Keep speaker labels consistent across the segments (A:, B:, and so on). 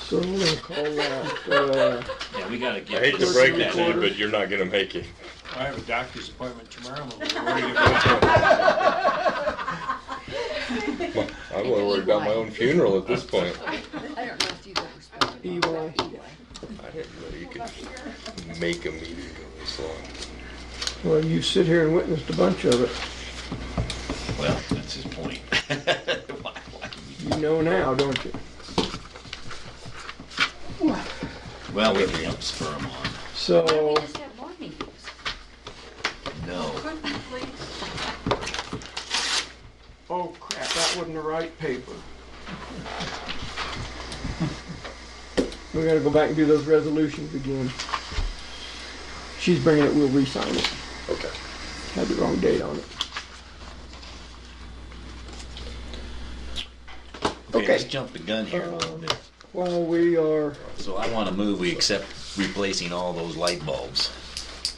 A: So we're gonna call that, uh,
B: Yeah, we gotta
C: I
B: get.
C: hate to
B: this-
C: break it to you, but you're not gonna make it.
D: I have a doctor's appointment tomorrow. I'm worried about-
C: I'm more worried about my own funeral at this point.
E: I don't know if you've ever spoken.
A: Eli.
C: I didn't know you could make a meeting go this long.
A: Well, you sit here and witnessed a bunch of it.
B: Well, that's his point. Why- why-
A: You know now, don't you?
B: Well, we can help spur him on.
A: So,
E: We just have more meetings.
B: No.
E: Couldn't we please?
A: oh crap, that wasn't the right paper. We gotta go back and do those resolutions again. She's bringing it, we'll re-sign it.
C: Okay.
A: Had the wrong date on it.
B: Okay, let's
A: Okay.
B: jump the gun here a little bit.
A: Well, we are,
B: So I wanna move, we accept replacing all those light bulbs.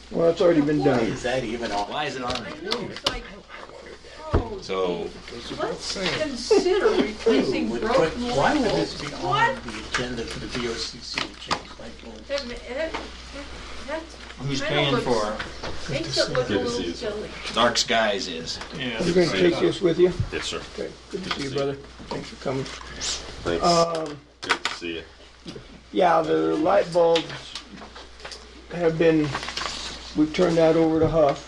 A: well, it's already been done.
B: that even on? Why is it on?
F: I
B: there?
F: know, it's like, oh,
B: So,
F: let's consider replacing broken
G: Why would this
F: light
G: be on
F: What?
G: the agenda for the VOCC to change light bulbs?
F: That, that, that's,
D: Who's
F: I
D: paying
F: don't
D: for
F: look- makes it look a
C: Good to see you.
F: little silly.
B: Dark Skies is.
D: it? Yeah.
A: You're gonna take this with you?
C: Yes, sir.
A: Okay, good to see you, brother. Thanks for coming.
C: Thanks.
A: Um,
C: Good to see you.
A: yeah, the light bulbs have been, we've turned that over to Huff.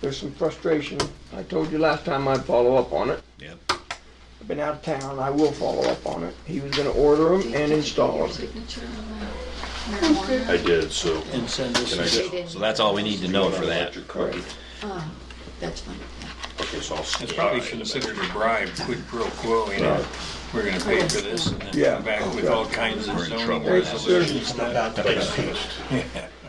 A: There's some frustration. I told you last time I'd follow up on it.
B: Yep.
A: I've been out of town, I will follow up on it. He was gonna order them and install
E: Your
A: them.
E: signature on that marijuana.
C: I did, so.
G: And send this
C: Can I
G: to
C: just-
E: They didn't.
B: So that's all we need to know for that.
C: Electric car.
E: Uh, That's fine.
C: Okay, so I'll.
D: It's probably considered a bribe, quid pro quo, you know? We're gonna pay for this and then
A: Yeah.
D: come back with all kinds of
B: We're in
D: zoning
B: trouble now.
D: resolutions.
G: about the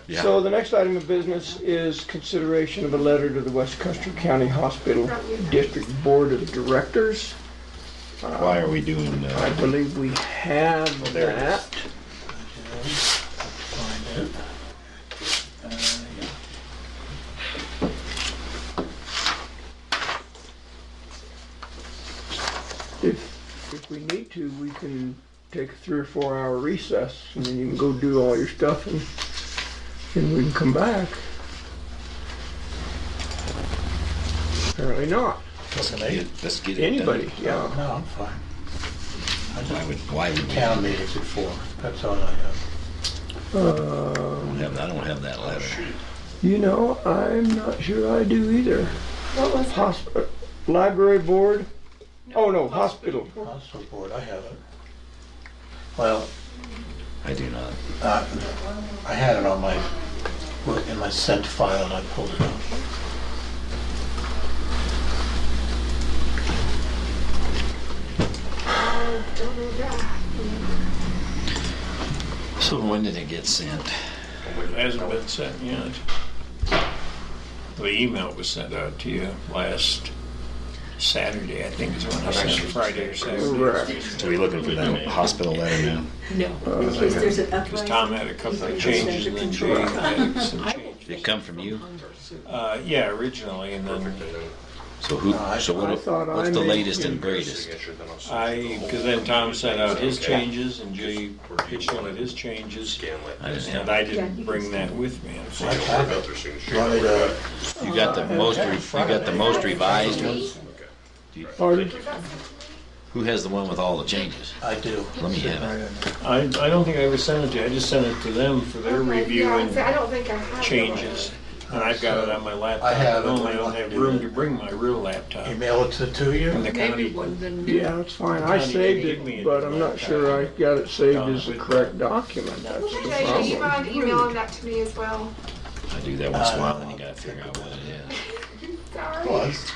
B: Yeah.
A: So the next item of business is consideration of a letter to the West Custer County Hospital District Board of Directors.
B: Why are we doing uh, Oh,
A: I believe we have
C: there it is.
A: that.
G: find it. Uh, yeah.
A: If, if we need to, we can take a three or four hour recess and then you can go do all your stuff and then we can come back. Apparently not.
G: Wasn't it?
B: Let's get it done.
A: Anybody, yeah.
G: No, I'm fine. I
B: Why
G: just,
B: would, why would we? I
G: town meetings at four, that's all I have.
A: Uh,
B: don't have, I don't have that letter.
A: you know, I'm not sure I do either. What was Hosp- uh, library board? Oh, no, hospital.
G: Hospital board, I have it. Well,
B: I do not.
G: uh, I had it on my, well, in my sent file and I pulled it out.
B: So when did it get sent?
D: It hasn't been sent yet. The email was sent out to you last Saturday, I think is when I sent it, Friday or Saturday.
A: Correct.
B: So we looking for that hospital letter now?
D: Because Tom had a couple of changes and then Jay had some changes.
B: Did it come from you?
D: Uh, yeah, originally, and then
B: So who, so
A: I
B: what,
A: thought
B: what's
A: I
B: the
A: made-
B: latest and greatest?
D: I, because then Tom sent out his changes and Jay pitched one of his changes.
B: I didn't have,
D: And I didn't bring that with me.
G: I have it. Want me to-
B: you got the most, re- you got the most revised one?
A: Pardon?
B: Who has the one with all the changes?
G: I do.
B: Let me have it.
D: I, I don't think I ever sent it to you, I just sent it to them for their review
F: Yeah,
D: and
F: I don't think I have.
D: changes. And I've got it on my laptop.
G: I have it.
D: No, I don't have room to bring my real laptop.
G: Email it to the two of you?
D: From the county.
A: Yeah, that's fine. I saved it, but I'm not sure I got it saved as the correct document. That's the
H: Yeah, you
A: problem.
H: mind emailing that to me as well?
B: I do that once in a while,
A: Uh,
B: and you gotta figure out what it is.
H: Sorry.
G: Was.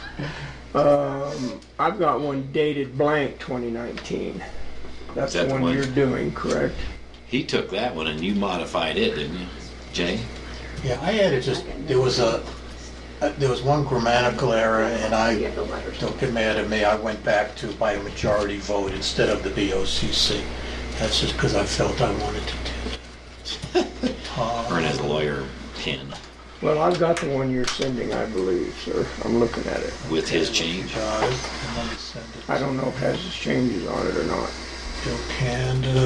A: Um, I've got one dated blank 2019. That's
B: Is that
A: the
B: the
A: one
B: one?
A: you're doing, correct?
B: He took that one and you modified it, didn't you, Jay?
G: Yeah, I had it just, there was a, uh, there was one grammatical error, and I, don't get mad at me, I went back to by a majority vote instead of the BOCC. That's just because I felt I wanted to do it.
A: Uh-huh.
B: Earn
G: Tom,
B: his lawyer pin
A: Well, I've got the one you're sending, I believe, sir. I'm looking at it.
B: with his change.
G: John, and let me send it
A: I don't know if it has changes on it or not.
G: to Bill Canada.